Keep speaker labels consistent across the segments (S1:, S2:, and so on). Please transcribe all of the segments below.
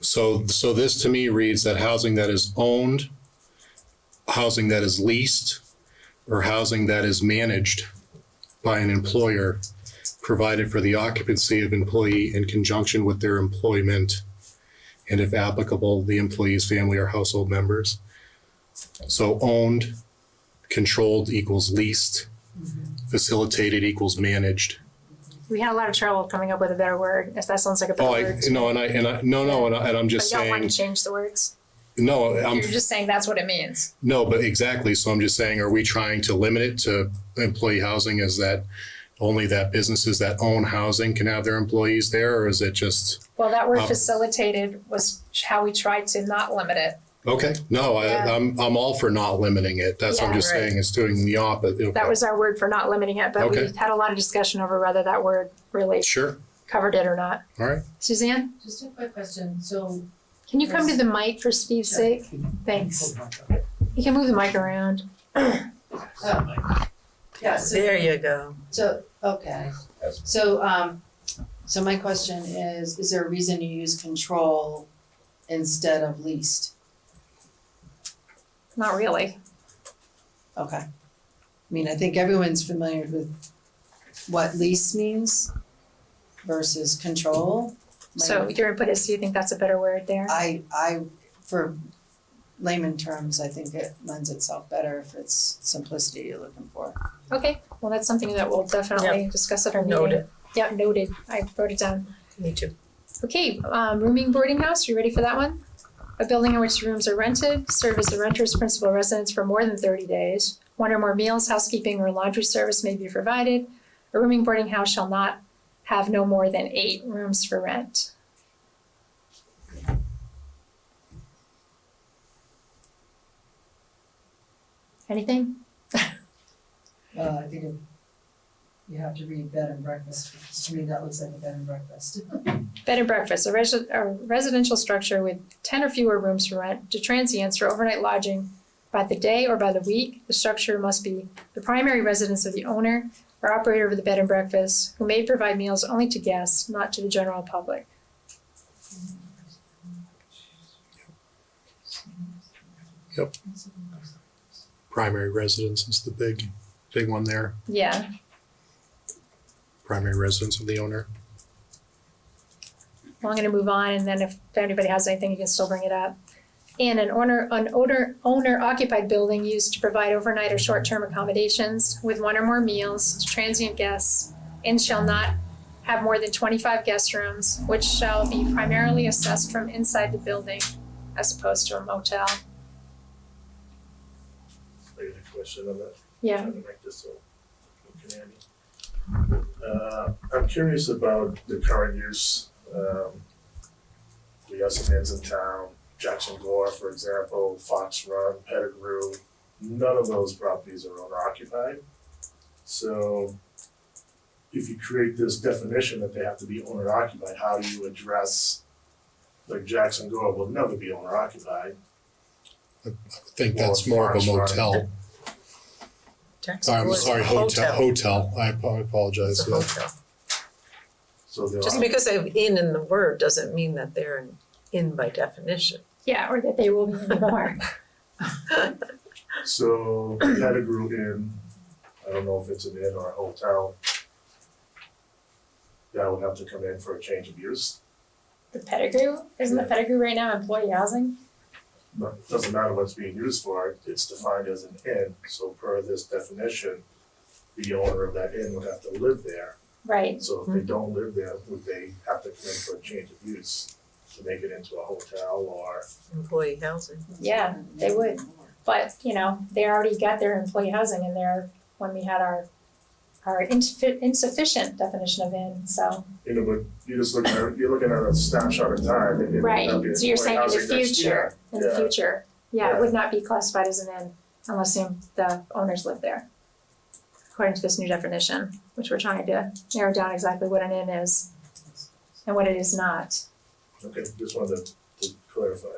S1: So, so this to me reads that housing that is owned, housing that is leased, or housing that is managed by an employer, provided for the occupancy of employee in conjunction with their employment, and if applicable, the employee's family or household members. So owned, controlled equals leased, facilitated equals managed.
S2: We had a lot of trouble coming up with a better word, if that sounds like a better
S1: Oh,
S2: word.
S1: I, no, and I, and I, no, no, and I, and I'm
S2: But
S1: just
S2: you don't want
S1: saying, Um,
S2: to change the words.
S1: no, I'm
S3: You're just saying that's what it means.
S1: No, but exactly. So I'm just saying, are we trying to limit it to employee housing? Is that only that businesses that own housing can have their employees there, or is it just,
S3: Well, that word
S1: Um,
S3: facilitated was how we tried to not limit it.
S1: okay, no, I,
S2: Yeah.
S1: I'm, I'm all for not limiting it. That's what I'm
S2: Yeah,
S1: just
S3: right.
S1: saying, it's doing the opposite.
S2: That was our word for not limiting it, but we
S1: Okay.
S2: had a lot of discussion over whether that word really
S1: Sure,
S2: covered it or not.
S1: all right.
S2: Suzanne,
S4: Just a quick question, so.
S2: can you come to the mic for Steve's sake? Thanks. You can move the mic around.
S4: uh, Yeah, so,
S5: There you go.
S4: so, okay, so, um, so my question is, is there a reason you use control instead of least?
S2: Not really.
S4: Okay. I mean, I think everyone's familiar with what least means versus control. My-
S2: So your input is, do you think that's a better word there?
S4: I, I, for layman terms, I think it lends itself better if it's simplicity you're looking for.
S2: Okay, well, that's something that we'll definitely discuss at our meeting.
S5: Noted.
S2: Yeah, noted. I wrote it down.
S5: Me too.
S2: Okay, um, rooming boarding house, you ready for that one? A building in which rooms are rented, serve as the renter's principal residence for more than thirty days. One or more meals, housekeeping, or laundry service may be provided. A rooming boarding house shall not have no more than eight rooms for rent. Anything?
S4: Well, Uh, I think it- you have to read bed and breakfast, because to me that looks like a bed and breakfest.
S2: Bed and breakfast, a resi- a residential structure with ten or fewer rooms for rent to transients for overnight lodging by the day or by the week. The structure must be the primary residence of the owner or operator of the bed and breakfast, who may provide meals only to guests, not to the general public.
S1: Primary residence is the big, big one there,
S2: Yeah,
S1: primary residence of the owner.
S2: well, I'm gonna move on, and then if anybody has anything, you can still bring it up. And an owner, an owner, owner occupied building used to provide overnight or short-term accommodations with one or more meals to transient guests and shall not have more than twenty-five guest rooms, which shall be primarily assessed from inside the building as opposed to a motel.
S6: I got a question on that.
S2: Yeah,
S6: Trying to make this so- Uh, I'm curious about the current use. Um, we got some ends in town, Jackson Gore, for example, Fox Run, Pettigrew. None of those properties are owner occupied. So if you create this definition that they have to be owner occupied, how do you address, like Jackson Gore will never be owner occupied?
S1: I think that's more of a
S6: Well,
S1: motel.
S5: Jackson
S1: I'm
S5: Gore is
S1: sorry,
S5: a
S1: hotel, hotel. I ap- I apologize.
S5: It's a
S1: yeah.
S5: hotel.
S6: So there
S5: Just
S6: are-
S5: because they have in in the word doesn't mean that they're an in by definition.
S2: yeah, or that they will be in the bar.
S6: So Pettigrew Inn, I don't know if it's an inn or a hotel. That would have to come in for a change of use,
S2: The Pettigrew, isn't the Pettigrew right now employee housing?
S6: but it doesn't matter what it's being used for, it's defined as an inn, so per this definition, the owner of that inn would have to live there,
S2: Right,
S6: so if they don't live there, would they have to come in for a change of use to make it into a hotel or?
S5: Employee housing.
S2: yeah, they would. But, you know, they already got their employee housing in there when we had our, our insuffi- insufficient definition of in, so.
S6: You know, but you're just looking at, you're looking at a snapshot in time, it might not be
S2: Right, so you're saying in the
S6: housing next
S2: future,
S6: year.
S2: in the
S6: Yeah.
S2: future, yeah, it would not be classified as an in unless the- the owners live there. According to this new definition, which we're trying to narrow down exactly what an in is and what it is not.
S6: Okay, just wanted to- to clarify.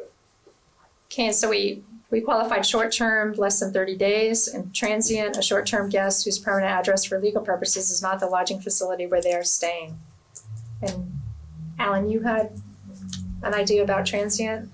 S2: Okay, so we, we qualified short-term, less than thirty days, and transient, a short-term guest whose permanent address for legal purposes is not the lodging facility where they are staying. And Alan, you had an idea about transient.